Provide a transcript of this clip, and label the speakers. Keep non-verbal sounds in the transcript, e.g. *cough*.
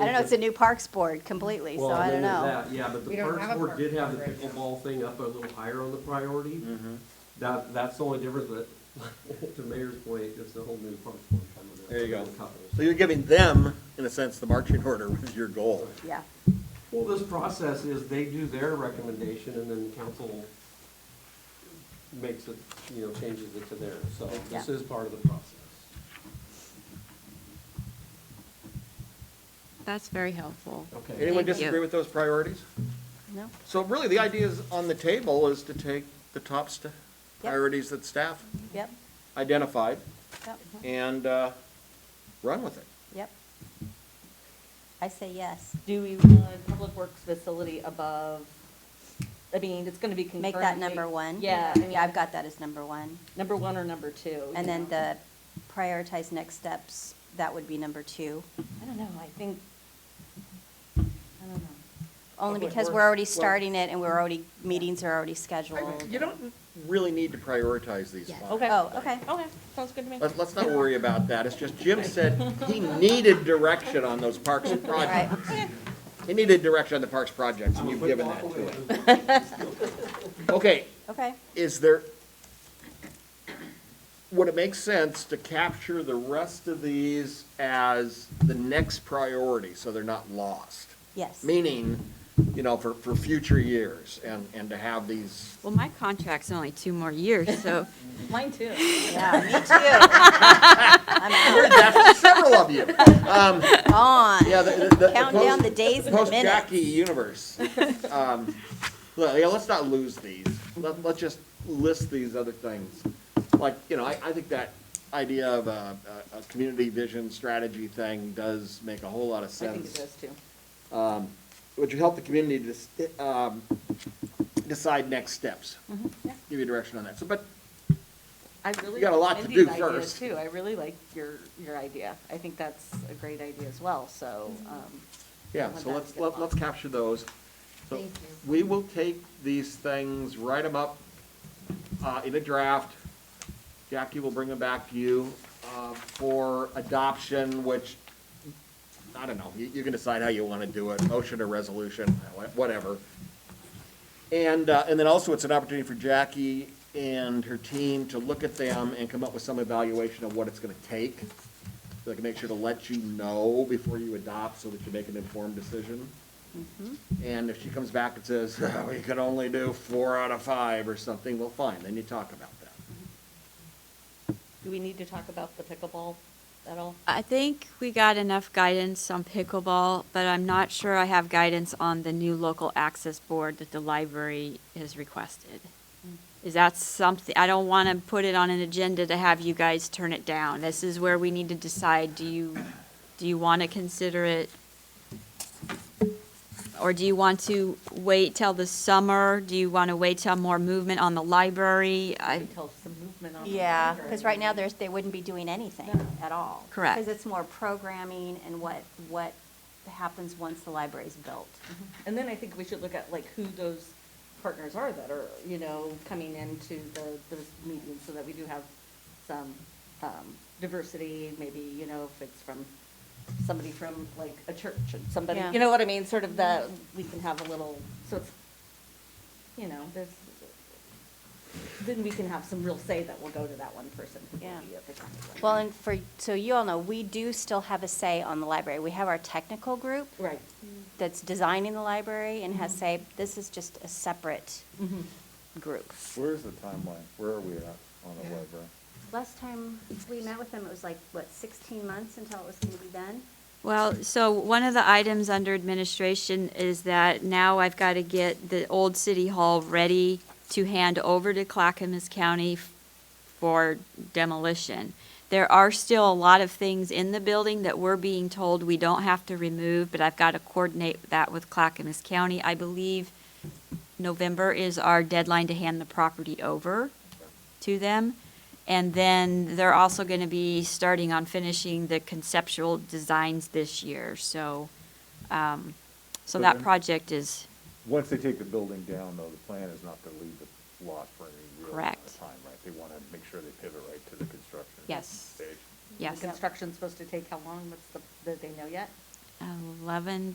Speaker 1: I don't know, it's a new parks board completely, so
Speaker 2: Well,
Speaker 1: I
Speaker 2: other than
Speaker 1: don't know.
Speaker 2: that, Yeah, but
Speaker 3: We
Speaker 2: the
Speaker 3: don't have
Speaker 2: Parks
Speaker 3: a
Speaker 2: Board
Speaker 3: park
Speaker 2: did have the
Speaker 3: board right now.
Speaker 2: pickleball thing up a little higher on the priority.
Speaker 1: Mm-hmm.
Speaker 2: That, that's the only difference, but *laughs* to Mayor's point, it's a whole new Parks Board coming up.
Speaker 4: There you go.
Speaker 2: Couples.
Speaker 4: So you're giving them, in a sense, the marching order *laughs* with your goal.
Speaker 1: Yeah,
Speaker 2: Well, this process is they do their recommendation and then council makes it, you know, changes it to theirs. So this
Speaker 1: Yeah.
Speaker 2: is part of the process.
Speaker 5: That's very helpful.
Speaker 2: Okay.
Speaker 4: Anyone
Speaker 5: Thank you.
Speaker 4: disagree with those priorities?
Speaker 1: no,
Speaker 4: So really, the idea is on the table is to take the top st- priorities that staff
Speaker 1: yep,
Speaker 4: identified
Speaker 1: yep,
Speaker 4: and uh, run with it.
Speaker 1: yep. I say yes.
Speaker 6: Do we want public works facility above, I mean, it's gonna be concurrent.
Speaker 1: Make that number one.
Speaker 6: Yeah. I mean,
Speaker 1: Yeah, I've got that as number one.
Speaker 6: Number one or number two.
Speaker 1: And then
Speaker 6: you know?
Speaker 1: the prioritize next steps, that would be number two.
Speaker 6: I don't know, I think, I don't know.
Speaker 1: Only
Speaker 6: Public
Speaker 1: because we're
Speaker 6: Works,
Speaker 1: already
Speaker 6: well-
Speaker 1: starting it and we're already, meetings are already
Speaker 4: I-
Speaker 1: scheduled.
Speaker 4: You don't really need to prioritize these
Speaker 1: Yeah.
Speaker 4: five.
Speaker 6: Okay.
Speaker 1: Oh, okay.
Speaker 6: Okay, sounds good to me.
Speaker 4: Let's, let's not worry about that. It's just Jim said he needed direction on those parks and
Speaker 1: All right.
Speaker 4: projects. He needed direction on the parks projects, and you've given that to him. Okay,
Speaker 1: Okay,
Speaker 4: is there, would it make sense to capture the rest of these as the next priority, so they're not lost?
Speaker 1: yes.
Speaker 4: Meaning, you know, for, for future years, and, and to have these,
Speaker 5: Well, my contract's only two more years, so
Speaker 6: Mine too.
Speaker 1: Yeah, me too. I'm
Speaker 4: that's several of you. Um,
Speaker 1: on.
Speaker 4: yeah, the, the- the.
Speaker 1: Count down
Speaker 4: post-
Speaker 1: the days and the minutes.
Speaker 4: Post-Jackie
Speaker 6: *laughs*
Speaker 4: universe. Um, Well, yeah, let's not lose these. Let, let's just list these other things. Like, you know, I, I think that idea of a, a, a community vision strategy thing does make a whole lot of
Speaker 6: I think it
Speaker 4: sense.
Speaker 6: does too.
Speaker 4: Um, Which would help the community to, s- um, decide next steps.
Speaker 6: Mm-hmm. yeah.
Speaker 4: Give you direction on that. So, but
Speaker 6: I really.
Speaker 4: You got a
Speaker 6: like
Speaker 4: lot to
Speaker 6: Mindy's
Speaker 4: do
Speaker 6: idea,
Speaker 4: first.
Speaker 6: Too, I really like your, your idea. I think that's a great idea as well, so, um,
Speaker 4: Yeah,
Speaker 6: Let
Speaker 4: so
Speaker 6: that
Speaker 4: let's,
Speaker 6: get
Speaker 4: let- let's
Speaker 6: lost.
Speaker 4: capture those. So
Speaker 3: Thank you.
Speaker 4: We will take these things, write them up uh, in a draft. Jackie will bring them back to you uh, for adoption, which, I don't know, you you can decide how you want to do it, motion or resolution, wha- whatever. And, uh, and then also it's an opportunity for Jackie and her team to look at them and come up with some evaluation of what it's going to take so they can make sure to let you know before you adopt so that you make an informed decision. And if she comes back and says, *laughs* "Oh, we could only do four out of five or something, well, fine, then you talk about that.
Speaker 6: do we need to talk about the pickleball at all?
Speaker 5: I think we got enough guidance on pickleball, but I'm not sure I have guidance on the new local access board that the library has requested. Is that something, I don't want to put it on an agenda to have you guys turn it down. This is where we need to decide, do you, do you want to consider it? Or do you want to wait till the summer? Do you want to wait till more movement on the library? I,
Speaker 6: Until some movement on. the
Speaker 1: Yeah,
Speaker 6: library.
Speaker 1: because right now, there's, they wouldn't be doing anything
Speaker 6: No.
Speaker 1: at all.
Speaker 5: Correct.
Speaker 1: Because it's more programming and what, what happens once the library's built.
Speaker 6: And then I think we should look at like who those partners are that are, you know, coming into the, those meetings so that we do have some, um, diversity, maybe, you know, if it's from somebody from like a church and somebody,
Speaker 1: Yeah.
Speaker 6: you know what I mean, sort of that, we can have a little, so it's, you know, there's, then we can have some real say that will go to that one person who will
Speaker 1: Yeah.
Speaker 6: be at the conference.
Speaker 1: Well, and for, so you all know, we do still have a say on the library. We have our technical group
Speaker 6: Right.
Speaker 1: that's designing the library and has say, this is just a separate group.
Speaker 7: Where's the timeline? Where are we at on the library?
Speaker 1: Last time we met with them, it was like, what, 16 months until it was going to be done?
Speaker 5: Well, so one of the items under administration is that now I've got to get the old city hall ready to hand over to Clackamas County f- for demolition. There are still a lot of things in the building that we're being told we don't have to remove, but I've got to coordinate that with Clackamas County. I believe November is our deadline to hand the property over to them. And then they're also going to be starting on finishing the conceptual designs this year, so, um, so that
Speaker 7: Okay.
Speaker 5: project is,
Speaker 7: Once they take the building down, though, the plan is not to leave the lot for any real amount
Speaker 5: Correct.
Speaker 7: of time, right? They want to make sure they pivot right to the construction
Speaker 5: Yes.
Speaker 7: stage.
Speaker 5: yes.
Speaker 6: Construction's supposed to take how long? What's the, do they know yet?
Speaker 5: eleven